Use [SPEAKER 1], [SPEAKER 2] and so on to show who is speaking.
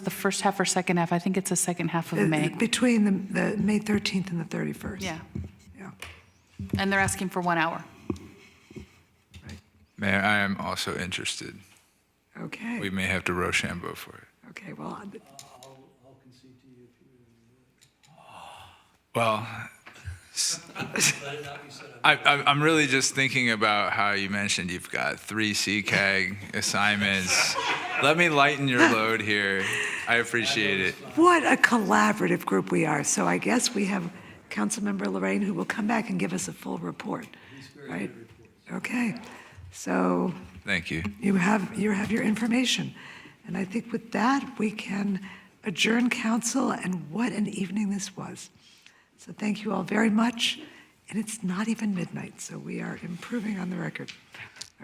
[SPEAKER 1] the first half or second half? I think it's the second half of
[SPEAKER 2] Uh,
[SPEAKER 1] May.
[SPEAKER 2] Between the, the May 13th and the 31st.
[SPEAKER 1] Yeah,
[SPEAKER 2] Yeah.
[SPEAKER 1] and they're asking for one hour.
[SPEAKER 3] Mayor, I am also interested. We
[SPEAKER 2] Okay,
[SPEAKER 3] may have to Rochambeau for it.
[SPEAKER 2] okay, well, I-
[SPEAKER 3] Well, s- I, I, I'm really just thinking about how you mentioned you've got three CCAG assignments. Let me lighten your load here. I appreciate it.
[SPEAKER 2] what a collaborative group we are. So I guess we have Councilmember Lorraine, who will come back and give us a full report, right? Okay, so
[SPEAKER 3] Thank you.
[SPEAKER 2] you have, you have your information. And I think with that, we can adjourn council, and what an evening this was. So thank you all very much, and it's not even midnight, so we are improving on the record.